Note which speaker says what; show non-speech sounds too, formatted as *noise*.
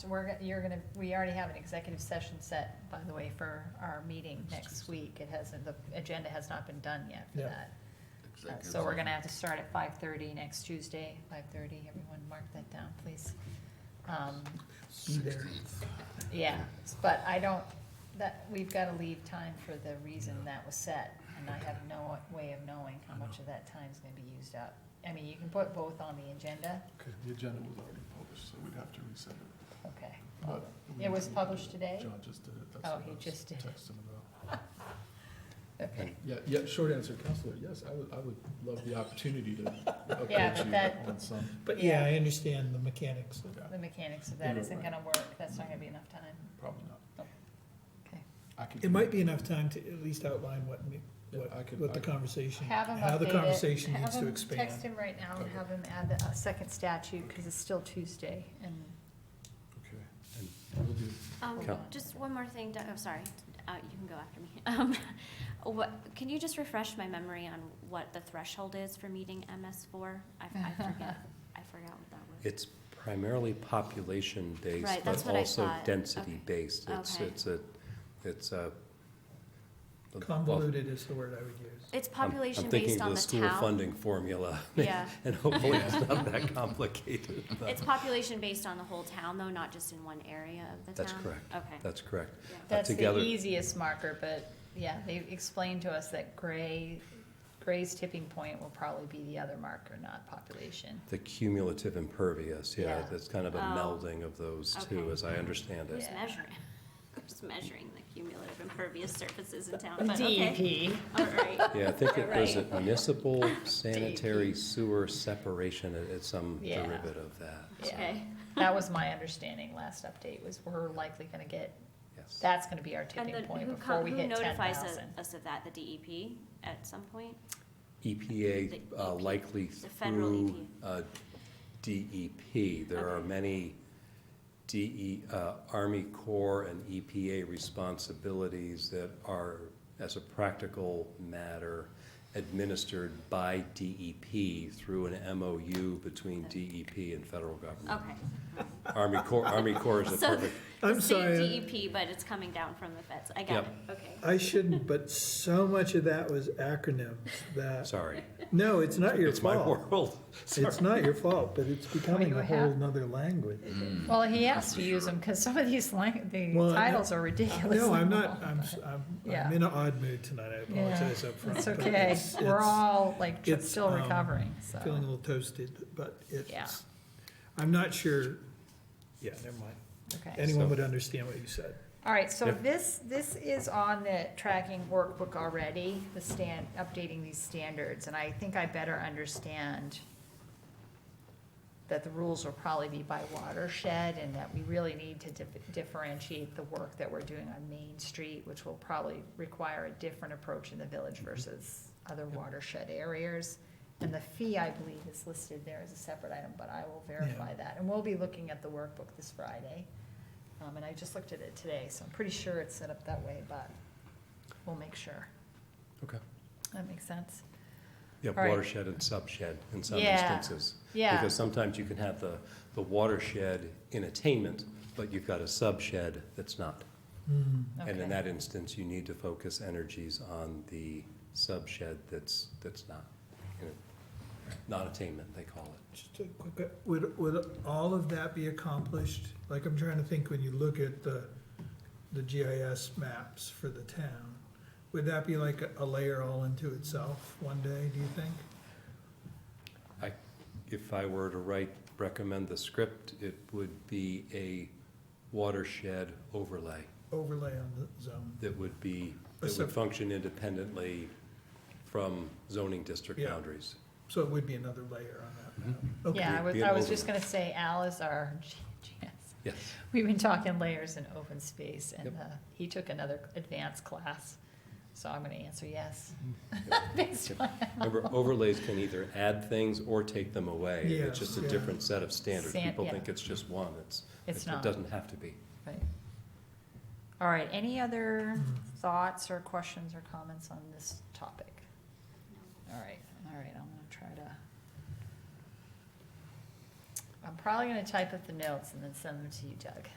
Speaker 1: So we're, go- you're gonna, we already have an executive session set, by the way, for our meeting next week. It hasn't, the agenda has not been done yet for
Speaker 2: Yeah.
Speaker 1: that. Uh,
Speaker 3: Executive
Speaker 1: So we're
Speaker 3: session.
Speaker 1: gonna have to start at five thirty next Tuesday, five thirty. Everyone mark that down, please. Um,
Speaker 2: Be there.
Speaker 3: 16th.
Speaker 1: yeah, but I don't, that, we've gotta leave time for the reason that was set. And I have no way of knowing how much of that time's gonna be used up. I mean, you can put both on the agenda,
Speaker 4: Okay, the agenda was already published, so we'd have to resend it.
Speaker 1: okay.
Speaker 4: but we-
Speaker 1: It was published today?
Speaker 4: John just did it. That's
Speaker 1: Oh,
Speaker 4: what
Speaker 1: he
Speaker 4: I was
Speaker 1: just did it.
Speaker 4: Texting about.
Speaker 1: Okay.
Speaker 4: Yeah, yeah, short answer, Counselor, yes, I would, I would love the opportunity
Speaker 1: *laughs*
Speaker 4: to
Speaker 1: Yeah, but
Speaker 4: update
Speaker 1: that-
Speaker 4: you on some.
Speaker 2: But yeah, I understand the mechanics. of-
Speaker 1: The mechanics of that
Speaker 4: Yeah,
Speaker 1: isn't
Speaker 4: right.
Speaker 1: gonna work, that's not gonna be enough time.
Speaker 4: Probably not.
Speaker 1: Okay.
Speaker 4: I could-
Speaker 2: It might be enough time to at least outline what, me-
Speaker 4: Yeah,
Speaker 2: what,
Speaker 4: I could-
Speaker 2: what the
Speaker 4: I could-
Speaker 2: conversation,
Speaker 1: Have him update it.
Speaker 2: how the conversation
Speaker 1: Have
Speaker 2: needs to
Speaker 1: him-
Speaker 2: expand.
Speaker 1: Text him right now and
Speaker 4: Okay.
Speaker 1: have him add the uh, second statute, cause it's still Tuesday and
Speaker 4: Okay, and we'll do,
Speaker 5: Um,
Speaker 1: Cal-
Speaker 5: just one more thing, Doug, oh, sorry, uh, you can go after me. *laughs* Um, what, can you just refresh my memory on what the threshold is for meeting MS four? I, I forget, I forgot what that was.
Speaker 6: It's primarily population-based,
Speaker 5: Right, that's
Speaker 6: but
Speaker 5: what I
Speaker 6: also
Speaker 5: thought.
Speaker 6: density-based. It's,
Speaker 5: Okay.
Speaker 6: it's a, it's a. well,
Speaker 2: Convoluted is the word I would use.
Speaker 5: It's
Speaker 6: I'm-
Speaker 5: population
Speaker 6: I'm thinking
Speaker 5: based
Speaker 6: of
Speaker 5: on
Speaker 6: the
Speaker 5: the
Speaker 6: school
Speaker 5: town.
Speaker 6: funding formula. *laughs*
Speaker 5: Yeah.
Speaker 6: And hopefully it's not
Speaker 5: *laughs*
Speaker 6: that complicated. but-
Speaker 5: It's population based on the whole town though, not just in one area of the town?
Speaker 6: That's correct.
Speaker 5: Okay,
Speaker 6: That's correct.
Speaker 5: Yeah.
Speaker 6: Uh,
Speaker 1: that's the
Speaker 6: together-
Speaker 1: easiest marker, but yeah, they explained to us that gray, gray's tipping point will probably be the other marker, not population.
Speaker 6: The cumulative impervious, yeah,
Speaker 1: Yeah.
Speaker 6: it's kind of a
Speaker 5: Oh.
Speaker 6: melding of those two,
Speaker 5: Okay.
Speaker 6: as I understand it.
Speaker 5: who's
Speaker 1: Yeah.
Speaker 5: measuring? *laughs* Who's measuring the cumulative impervious surfaces in town? But okay,
Speaker 1: DEP.
Speaker 5: all right.
Speaker 6: Yeah, I
Speaker 5: *laughs*
Speaker 6: think it was
Speaker 5: Right.
Speaker 6: a
Speaker 5: *laughs*
Speaker 6: municipal sanitary sewer separation, it- it's some
Speaker 1: Yeah.
Speaker 6: derivative of that,
Speaker 1: *laughs* Yeah,
Speaker 5: Okay,
Speaker 1: that was my understanding last update, was we're likely gonna get,
Speaker 6: yes.
Speaker 1: that's gonna be our
Speaker 5: and
Speaker 1: tipping
Speaker 5: then
Speaker 1: point
Speaker 5: who
Speaker 1: before
Speaker 5: com-
Speaker 1: we
Speaker 5: who
Speaker 1: hit ten
Speaker 5: notifies us-
Speaker 1: thousand.
Speaker 5: us of that, the DEP at some point?
Speaker 6: EPA
Speaker 5: The
Speaker 6: E uh,
Speaker 5: EP,
Speaker 6: likely
Speaker 5: the federal E
Speaker 6: through uh, DEP. There are
Speaker 5: Okay.
Speaker 6: many DE, uh, Army Corps and EPA responsibilities that are, as a practical matter, administered by DEP through an MOU between DEP and federal government.
Speaker 5: Okay.
Speaker 6: *laughs* Army Corps, Army Corps is a
Speaker 5: *laughs* So-
Speaker 6: perfect,
Speaker 2: I'm
Speaker 5: It's the
Speaker 2: sorry.
Speaker 5: DEP, but it's coming down from the feds. I
Speaker 6: Yep.
Speaker 5: got it, okay.
Speaker 2: I
Speaker 4: *laughs*
Speaker 2: shouldn't, but so much of that was acronyms that,
Speaker 6: sorry.
Speaker 2: no, it's not your
Speaker 6: It's my
Speaker 2: fault.
Speaker 6: world. *laughs*
Speaker 2: It's not your fault, but it's becoming
Speaker 1: you
Speaker 2: a
Speaker 1: have-
Speaker 2: whole nother language.
Speaker 1: Well, he has to use them, cause some of these lang, the
Speaker 2: Well, I-
Speaker 1: titles are ridiculous.
Speaker 2: No,
Speaker 1: *laughs*
Speaker 2: I'm not, I'm, s- I'm,
Speaker 1: Yeah.
Speaker 2: I'm in an odd mood tonight, I
Speaker 1: Yeah,
Speaker 2: apologize up front.
Speaker 1: It's
Speaker 2: but
Speaker 1: okay,
Speaker 2: it's-
Speaker 1: we're
Speaker 2: it's-
Speaker 1: all like tr-
Speaker 2: it's,
Speaker 1: still
Speaker 2: um,
Speaker 1: recovering,
Speaker 2: Feeling a
Speaker 1: so,
Speaker 2: little toasted, but it's, I'm not sure, yeah, never mind.
Speaker 1: okay.
Speaker 2: Anyone
Speaker 6: So-
Speaker 2: would understand what you said.
Speaker 1: All right, so
Speaker 6: Yeah.
Speaker 1: this, this is on the tracking workbook already, the stand, updating these standards, and I think I better understand that the rules will probably be by watershed, and that we really need to dif- differentiate the work that we're doing on Main Street, which will probably require a different approach in the village versus other watershed areas. And the fee, I believe, is listed there as a separate item, but I will verify that, and we'll be looking at the workbook this Friday. Um, and I just looked at it today, so I'm pretty sure it's set up that way, but we'll make sure.
Speaker 6: Okay.
Speaker 1: That makes sense?
Speaker 6: Yeah,
Speaker 1: All right.
Speaker 6: watershed and subshed in some
Speaker 1: Yeah.
Speaker 6: instances.
Speaker 1: Yeah,
Speaker 6: Because sometimes you can have the, the watershed in attainment, but you've got a subshed that's not. And
Speaker 1: Okay.
Speaker 6: in that instance, you need to focus energies on the subshed that's, that's not, you know, non-attainment, they call it.
Speaker 2: Just a quick, would, would all of that be accomplished? Like, I'm trying to think, when you look at the, the GIS maps for the town, would that be like a- a layer all into itself one day, do you think?
Speaker 6: If I were to write, recommend the script, it would be a watershed overlay
Speaker 2: Overlay on the zone.
Speaker 6: that would be,
Speaker 2: A
Speaker 6: that
Speaker 2: sub-
Speaker 6: would function independently from zoning district
Speaker 2: Yeah.
Speaker 6: boundaries.
Speaker 2: So it would be another layer on that map. Okay.
Speaker 1: yeah, I was,
Speaker 6: Be an
Speaker 1: I was
Speaker 6: overlay.
Speaker 1: just gonna say Al is our *laughs* GS.
Speaker 6: Yes.
Speaker 1: We've been talking layers and open space and,
Speaker 6: Yep.
Speaker 1: uh, he took another advanced class, so I'm gonna answer yes. *laughs*
Speaker 6: Mm-hmm.
Speaker 1: Based on
Speaker 6: Remember, overlays can either add things or take them away. It's just a
Speaker 2: Yes, yeah.
Speaker 6: different set of standards.
Speaker 1: Stan-
Speaker 6: People
Speaker 1: yeah.
Speaker 6: think it's just one. It's,
Speaker 1: *laughs* It's
Speaker 6: it
Speaker 1: not,
Speaker 6: doesn't have to be.
Speaker 1: right. All right, any other
Speaker 2: Hmm.
Speaker 1: thoughts or questions or comments on this topic? All right, all right, I'm gonna try to I'm probably gonna type up the notes and then send them to you, Doug.